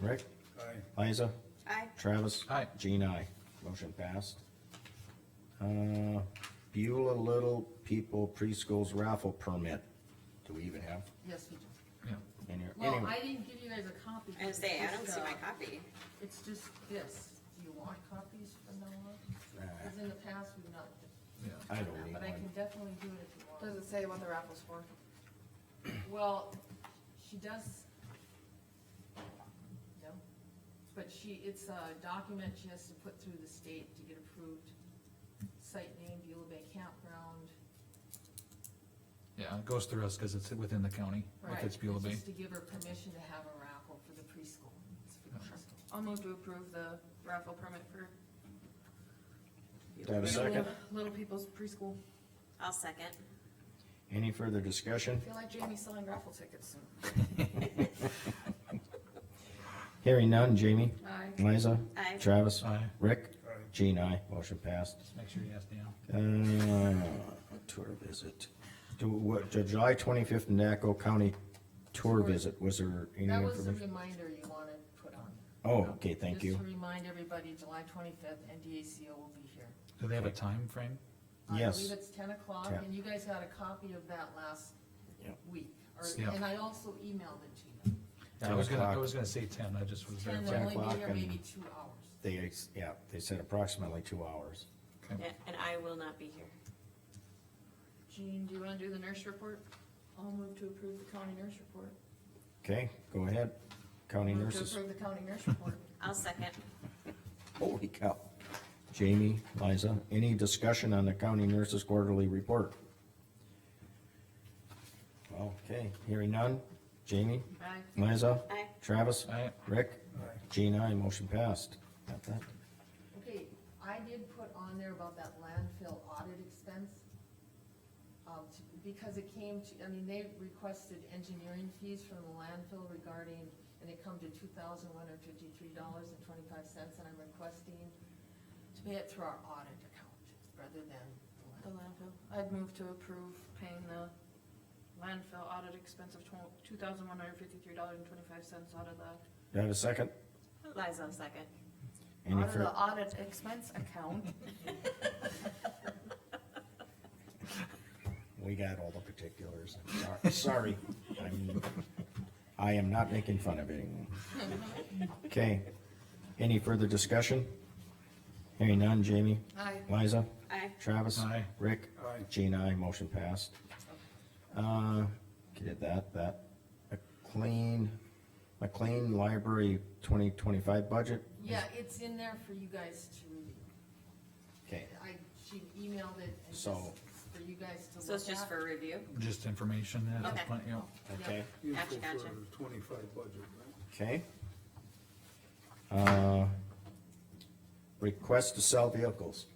Rick? Aye. Liza? Aye. Travis? Aye. Jean, aye. Motion passed. Uh, Beulah Little People Preschool's raffle permit. Do we even have Yes, we do. Yeah. any? Well, anyway, I didn't give you guys a copy. I was saying, I don't see my It's, uh, copy. It's just this. Do you want copies from now on? Because in the past, we've not, I don't need but I can one. definitely do it if you want. Does it say what the raffle's for? Well, she does. No, but she, it's a document she has to put through the state to get approved. Site name, Beulah Bay Campground. Yeah, it goes through us because it's within the county, Right, if it's Beulah Bay. Just to give her permission to have a raffle for the preschool. It's for the preschool. I'll move to approve the raffle permit for. Do I have a second? Little People's Preschool. I'll second. Any further discussion? I feel like Jamie's selling raffle tickets soon. Hearing none, Jamie? Aye. Liza? Aye. Travis? Aye. Rick? Aye. Jean, aye. Motion passed. Just Make sure you ask Dan. Uh, tour visit. Do, what, the July twenty-fifth Naco County tour visit, was there any That was the information? reminder you wanted put on. Oh, okay, thank you. Just to remind everybody, July twenty-fifth, NDACO will be here. Do they have a time frame? Yes. I believe it's ten o'clock, Ten. and you guys got a copy of that last Yep. week, Yeah. or, and I also emailed it to you. Yeah, I 10 was gonna, I o'clock. was gonna say ten, I just was there. Ten, Ten they'll only o'clock be here and- maybe two hours. They, ex- yeah, they said approximately two hours. Yeah, And I will not be here. Jean, do you wanna do the nurse report? I'll move to approve the county nurse report. Okay, go ahead, county Move to nurses. approve the county nurse report. I'll second. Holy cow. Jamie, Liza, any discussion on the county nurses quarterly report? Okay, hearing none. Jamie, Aye. Liza, Aye. Travis, Aye. Rick, Aye. Jean, I, motion passed. Got that? Okay, I did put on there about that landfill audit expense. Um, to- because it came to, I mean, they requested engineering fees from the landfill regarding, and it come to two thousand one hundred fifty-three dollars and twenty-five cents, and I'm requesting to pay it through our audit account, rather than the The landfill. landfill. I'd move to approve paying the landfill audit expense of two thousand one hundred fifty-three dollars and twenty-five cents out of the, Do I have a second? Liza, I'll second. Any out of the fur- audit expense account. we got all the particulars. I'm sor- Sorry. I'm- I am not making fun of anyone. Okay, any further discussion? Hearing none, Jamie, Aye. Liza, Aye. Travis. Aye. Rick. Aye. Jean, I, motion passed. Uh, did that, that, McLean, McLean Library twenty twenty-five budget? Yeah, it's in there for you guys to review. Okay, I, she emailed it and just So- for you guys to look at. So it's just for review? Just information at this Okay. point, yeah. okay. Useful Gotcha, gotcha. for the twenty-five budget, right? Okay. Uh, Request to sell vehicles.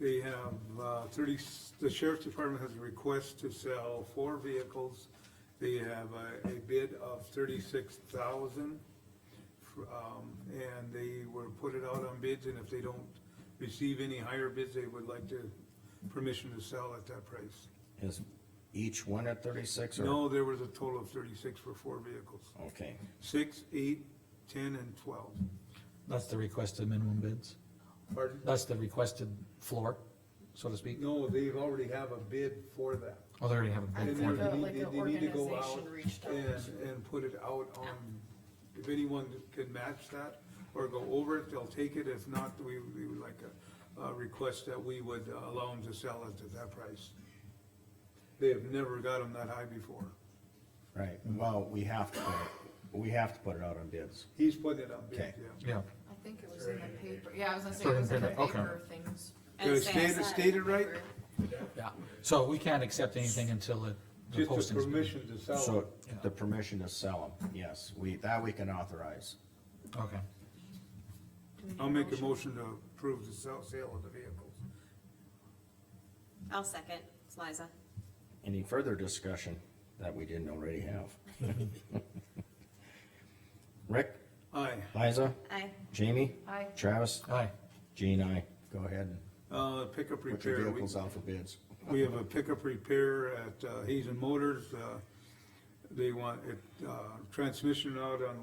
They have, uh, thirty, the sheriff's department has a request to sell four vehicles. They have a, a bid of thirty-six thousand. Um, and they were put it out on bids, and if they don't receive any higher bids, they would like to, permission to sell at that price. Is each one at thirty-six or? No, there was a total of thirty-six for four vehicles, Okay, six, eight, ten, and twelve. That's the requested minimum bids. Pardon? That's the requested floor, so to speak. No, they already have a bid for that. Oh, they already have a bid And for then it. Yeah, they like need, an they need to go out organization reached out. and, and put it out on, if anyone can match that or go over it, they'll take it. If not, we, we would like a, a request that we would allow them to sell it at that price. They have never got them that high before. right, well, we have to, put it- we have to put it out on bids. He's putting it up, yeah. Okay. Yeah, I think it was in the paper, yeah, I was gonna say Put it it was in in the paper, okay. paper things. I would Did I say I state saw it, it. state it right? yeah. So we can't accept anything until it, the Just the posting's. been- permission to sell it. So the permission to sell them, yes, we, that we can authorize. Okay. I'll make a motion to approve the sale, sale of the vehicles. I'll second. It's Liza. Any further discussion that we didn't already have? Rick, Aye. Liza, Aye. Jamie, Aye. Travis, Aye. Jean, I, go ahead and Uh, pickup repair. put your we- vehicles out for bids. We have a pickup repair at uh, Hazen Motors. uh, They want it, uh, transmission out on